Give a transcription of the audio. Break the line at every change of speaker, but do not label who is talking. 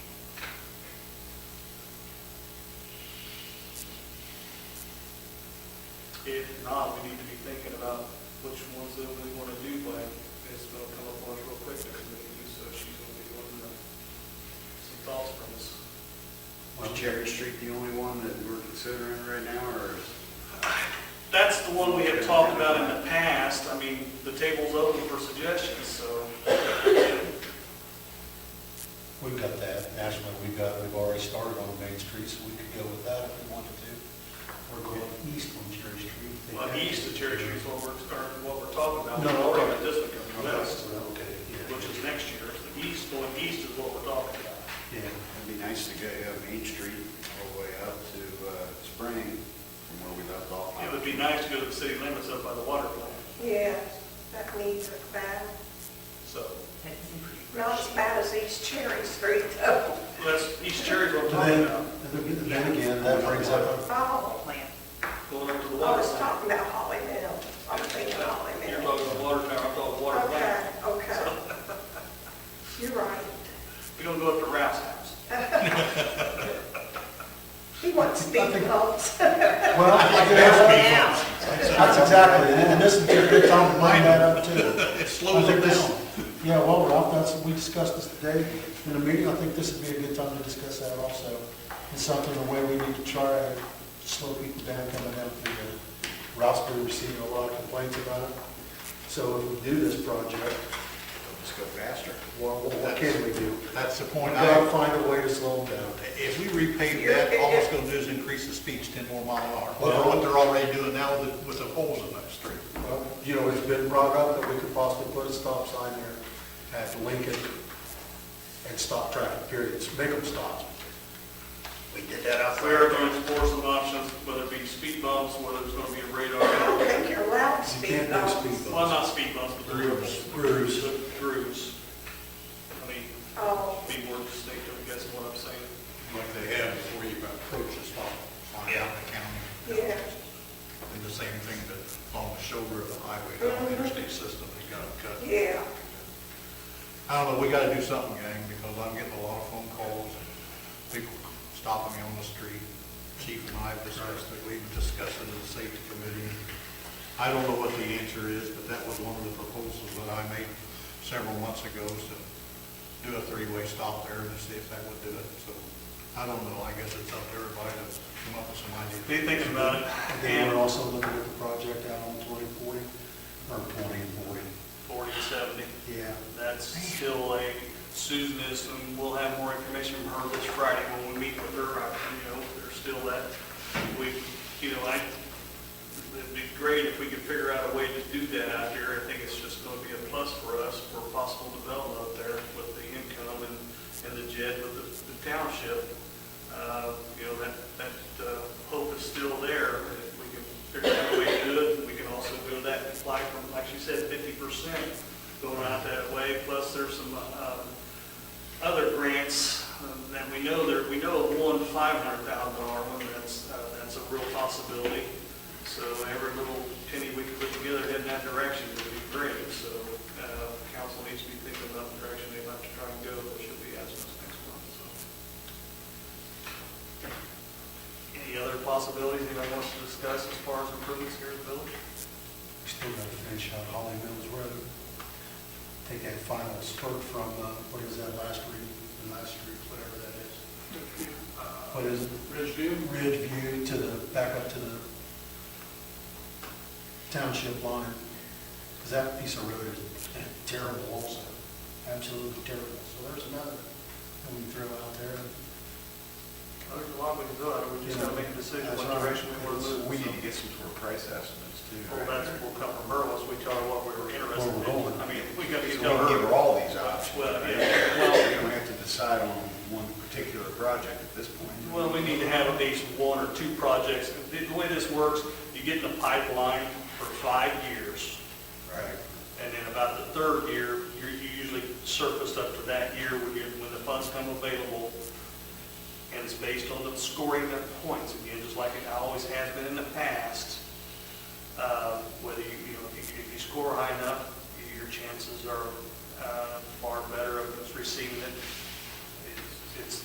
If not, we need to be thinking about which ones that we want to do, but it's going to come up on us real quick, the committee, so she's going to be wanting to- some thoughts from us.
Is Cherry Street the only one that we're considering right now, or is?
That's the one we have talked about in the past, I mean, the table's open for suggestions, so.
We've got that, nationally, we've got, we've already started on Main Street, so we could go with that if we wanted to.
We're going east on Cherry Street.
Well, east of Cherry Street is what we're, or what we're talking about,
No,
we're
okay.
already got this one
Okay,
coming west,
well, okay,
which
yeah.
is next year, the east, going east is what we're talking about.
Yeah,
It'd be nice to go up Main Street all the way up to uh, Spring from where we left off.
It would be nice to go to the city limits up by the water plant,
Yeah, that needs a bad,
so,
not as bad as East Cherry Street though.
well, that's, East Cherry's what I'm talking
And
about,
then, and then- then again, that brings up,
Oh,
going up to the
I
water
was
plant.
talking about Holly Mill. Oh, I'm thinking Holly
You're
Mill.
talking about water tower, I'm talking water
Okay,
plant.
okay. You're right.
We don't go up to Ralph's house.
He wants speed bumps.
well, I could ask- that's exactly, it, and this would be a good time to bring that up too. Slow it down. Yeah, well, Ralph, that's, we discussed this today in the meeting, I think this would be a good time to discuss that also. It's something, the way we need to try to slow people down coming down through the, Ralph's been receiving a lot of complaints about it. So if we do this project,
Just go faster.
Well, what what can we do?
That's the
We
point.
gotta
I-
find a way to slow them down.
If we repave that, all it's gonna do is increase the speeds ten more mile an hour.
Well-
What they're already doing now with, with the holes in that street.
Well, You know, it's been brought up that we could possibly put a stop sign there at Lincoln and stop traffic periods, make them stop.
We did that out
We are going to explore some options, whether it be speed bumps, whether it's going to be a
I
radar.
don't think you're allowed
You can't
speed
do speed
bumps.
Well,
bumps.
not speed bumps, but grooves.
Grooves.
Grooves. I mean,
Oh,
be more distinct, I guess, is what I'm saying.
Like they have before you approach the stop sign out in the county.
yeah.
And the same thing that on the shoulder of the highway, down the interstate system, they got to cut.
Yeah.
I don't know, we gotta do something, gang, because I'm getting a lot of phone calls and people stopping me on the street. Chief and I have discussed it, we've discussed it in the safety committee. I don't know what the answer is, but that was one of the proposals that I made several months ago, is to do a three-way stop there and see if that would do it, so. I don't know, I guess it's up to everybody to come up with some ideas.
Be thinking about it.
And then
And
we're also looking at the project out on twenty forty, or twenty and forty.
forty to seventy,
Yeah.
that's still a, Susan is, and we'll have more information from her this Friday when we meet with her. I- You know, there's still that, we, you know, I, it'd be great if we could figure out a way to do that out here. I think it's just going to be a plus for us for possible development up there with the income and, and the jet with the the township. Uh, You know, that, that uh, hope is still there. and If we can figure out a way to do it, we can also do that, and apply from, like you said, fifty percent going out that way. Plus, there's some, uh, other grants, um, and we know there, we know of one five hundred thousand dollar one, that's, uh, that's a real possibility. So every little penny we can put together in that direction would be great, so, uh, council needs to be thinking about the direction they'd like to try and go, which should be asking us next month, so. Any other possibilities anybody wants to discuss as far as improvements here in the village?
We still gotta finish out Holly Mills Road. Take that final spurt from, uh, what is that last street, the last street, whatever that is. What is it?
Ridgeview?
Ridge View to the, back up to the township line, because that piece of road is terrible also, absolutely terrible. So there's another that we throw out there.
There's a lot we can do, I mean, we just gotta make a decision
That's
what
right.
direction we wanna move.
We need
so.
to get some sort of price estimates too.
Well, that's, will come from her once we tell her what we were interested
Where we're going.
in. I mean, we gotta get
So we can give
her.
her all these options.
Well,
We
yeah, well,
don't have to decide on one particular project at this point.
well, we need to have at least one or two projects. The the way this works, you get in a pipeline for five years,
Right.
and then about the third year, you're you usually surfaced up to that year when you, when the funds come available. And it's based on the scoring of points, again, just like it always has been in the past. uh, whether you, you know, if you, if you score high enough, your chances are uh, far better of us receiving it. It's- It's